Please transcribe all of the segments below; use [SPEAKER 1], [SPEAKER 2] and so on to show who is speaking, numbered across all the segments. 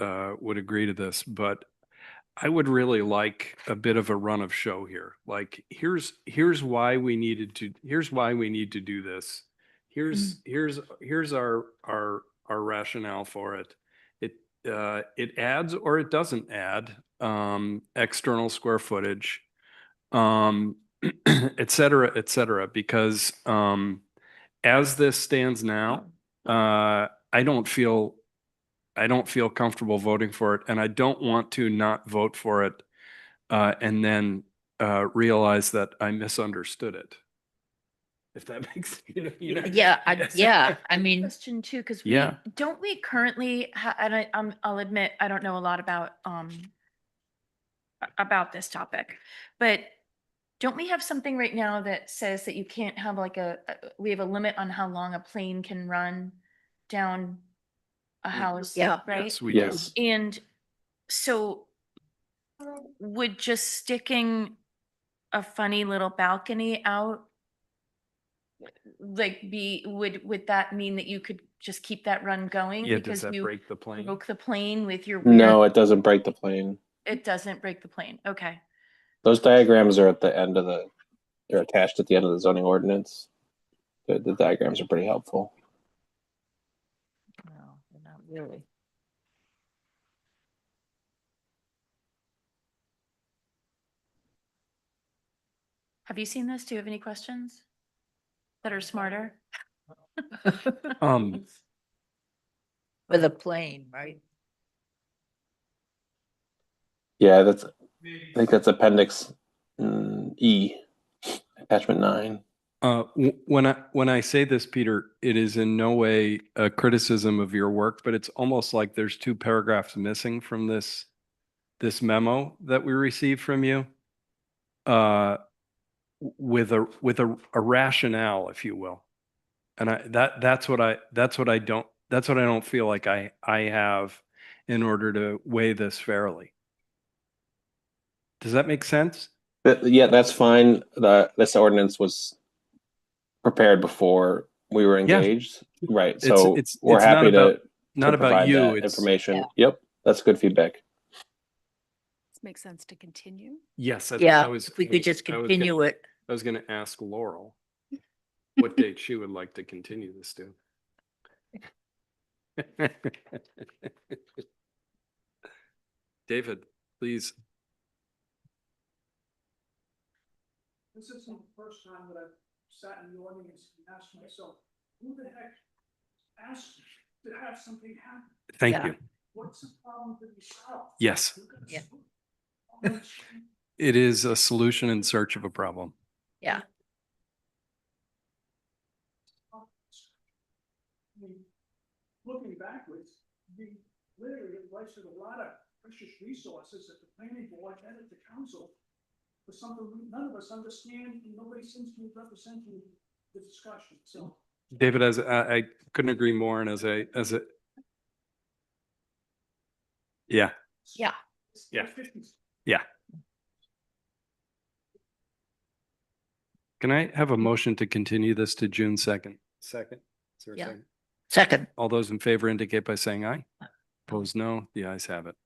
[SPEAKER 1] uh, would agree to this, but I would really like a bit of a run of show here. Like, here's, here's why we needed to, here's why we need to do this. Here's, here's, here's our, our, our rationale for it. It, uh, it adds or it doesn't add, um, external square footage. Um, et cetera, et cetera, because, um, as this stands now, uh, I don't feel, I don't feel comfortable voting for it, and I don't want to not vote for it uh, and then uh, realize that I misunderstood it. If that makes, you know, you know.
[SPEAKER 2] Yeah, I,
[SPEAKER 1] Yes.
[SPEAKER 2] yeah, I mean,
[SPEAKER 3] Question too, because we,
[SPEAKER 1] Yeah.
[SPEAKER 3] don't we currently, ha- and I, um, I'll admit, I don't know a lot about, um, a- about this topic, but don't we have something right now that says that you can't have like a, a- we have a limit on how long a plane can run down a house?
[SPEAKER 2] Yeah.
[SPEAKER 3] Right?
[SPEAKER 1] Yes, we do.
[SPEAKER 3] And so would just sticking a funny little balcony out like be, would, would that mean that you could just keep that run going?
[SPEAKER 1] Yeah, does
[SPEAKER 3] because
[SPEAKER 1] that
[SPEAKER 3] you
[SPEAKER 1] break the plane?
[SPEAKER 3] Broke the plane with your. weird-
[SPEAKER 4] No, it doesn't break the plane.
[SPEAKER 3] It doesn't break the plane. Okay.
[SPEAKER 4] Those diagrams are at the end of the, they're attached at the end of the zoning ordinance. The, the diagrams are pretty helpful.
[SPEAKER 2] no, not really.
[SPEAKER 3] Have you seen this? Do you have any questions that are smarter?
[SPEAKER 1] Um,
[SPEAKER 2] With a plane, right?
[SPEAKER 4] Yeah, that's, I think that's appendix mm, E, attachment nine.
[SPEAKER 1] Uh, w- when I when I say this, Peter, it is in no way a criticism of your work, but it's almost like there's two paragraphs missing from this this memo that we received from you, uh, w- with a with a, a rationale, if you will. And I that that's what I that's what I don't that's what I don't feel like I I have in order to weigh this fairly. Does that make sense?
[SPEAKER 4] That, yeah, that's fine. The, this ordinance was prepared before we were
[SPEAKER 1] Yeah.
[SPEAKER 4] engaged. Right,
[SPEAKER 1] It's-
[SPEAKER 4] so
[SPEAKER 1] it's-
[SPEAKER 4] we're
[SPEAKER 1] it's not
[SPEAKER 4] happy to.
[SPEAKER 1] about- Not
[SPEAKER 4] to
[SPEAKER 1] about
[SPEAKER 4] provide
[SPEAKER 1] you.
[SPEAKER 4] that
[SPEAKER 1] It's
[SPEAKER 4] Information. Yep, that's good feedback.
[SPEAKER 5] Makes sense to continue.
[SPEAKER 1] yes. that's- I
[SPEAKER 2] Yeah,
[SPEAKER 1] was
[SPEAKER 2] if we
[SPEAKER 1] gonna-
[SPEAKER 2] could just
[SPEAKER 1] I was gonna-
[SPEAKER 2] continue it.
[SPEAKER 1] I was going to ask Laurel what date she would like to continue this to. David, please.
[SPEAKER 6] This isn't the first time that I've sat in the audience and asked myself, who the heck asked to have something happen?
[SPEAKER 1] Thank
[SPEAKER 2] Yeah.
[SPEAKER 1] you.
[SPEAKER 6] What's the problem to be solved?
[SPEAKER 1] Yes,
[SPEAKER 6] We're gonna
[SPEAKER 2] Yeah.
[SPEAKER 6] solve it. Oh, gee.
[SPEAKER 1] it is a solution in search of a problem.
[SPEAKER 6] I mean, Looking backwards, we literally have wasted a lot of precious resources at the planning board and at the council for something we- none of us understand and nobody seems to be representing the discussion, so.
[SPEAKER 1] David, as I, I couldn't agree more and as a, as a. Yeah,
[SPEAKER 2] Yeah.
[SPEAKER 6] it's
[SPEAKER 1] Yeah.
[SPEAKER 6] 50s.
[SPEAKER 1] can I have a motion to continue this to June second? Second. Is there a
[SPEAKER 2] Yeah.
[SPEAKER 1] second?
[SPEAKER 2] Second,
[SPEAKER 1] All those in favor indicate by saying aye. Opposed, no. The ayes have it.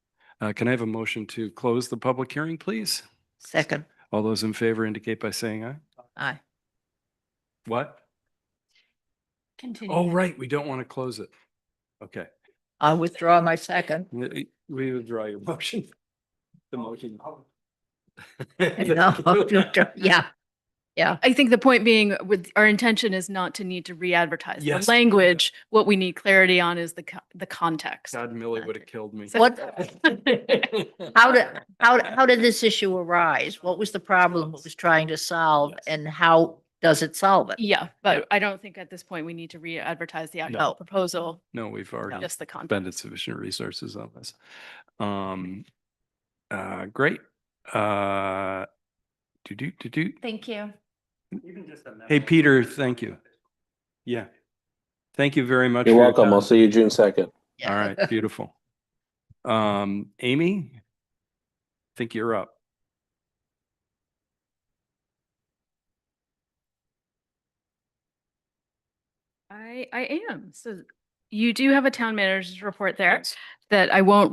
[SPEAKER 1] Uh, Can I have a motion to close the public hearing, please?
[SPEAKER 2] second,
[SPEAKER 1] All those in favor indicate by saying aye.
[SPEAKER 2] aye.
[SPEAKER 1] What?
[SPEAKER 3] Continue.
[SPEAKER 1] Oh, right, we don't want to close it. Okay,
[SPEAKER 2] I withdraw my second.
[SPEAKER 1] we we withdraw your motion. The motion.
[SPEAKER 2] No, yeah,
[SPEAKER 5] I think the point being with our intention is not to need to re-advertise the
[SPEAKER 1] Yes.
[SPEAKER 5] language. What we need clarity on is the co- the context.
[SPEAKER 1] God, Millie would have killed me.
[SPEAKER 2] what, how did, how, d- how did this issue arise? What was the problem it was trying to solve
[SPEAKER 1] Yes.
[SPEAKER 2] and how does it solve it?
[SPEAKER 5] Yeah, but I don't think at this point we need to re-advertise the
[SPEAKER 2] No.
[SPEAKER 5] actual proposal,
[SPEAKER 1] No, we've already
[SPEAKER 5] just the context.
[SPEAKER 1] expended sufficient resources on this. Um, uh, Great. Uh, Do, do, do, do.
[SPEAKER 3] Thank you.
[SPEAKER 1] Hey, Peter, thank you. Yeah. Thank you very much.
[SPEAKER 4] You're
[SPEAKER 1] for your
[SPEAKER 4] welcome. I'll
[SPEAKER 1] time.
[SPEAKER 4] see you June second.
[SPEAKER 2] Yeah.
[SPEAKER 1] All right, beautiful. Um, Amy, I think you're up.
[SPEAKER 5] I, I am. So you do have a town manager's report there that I won't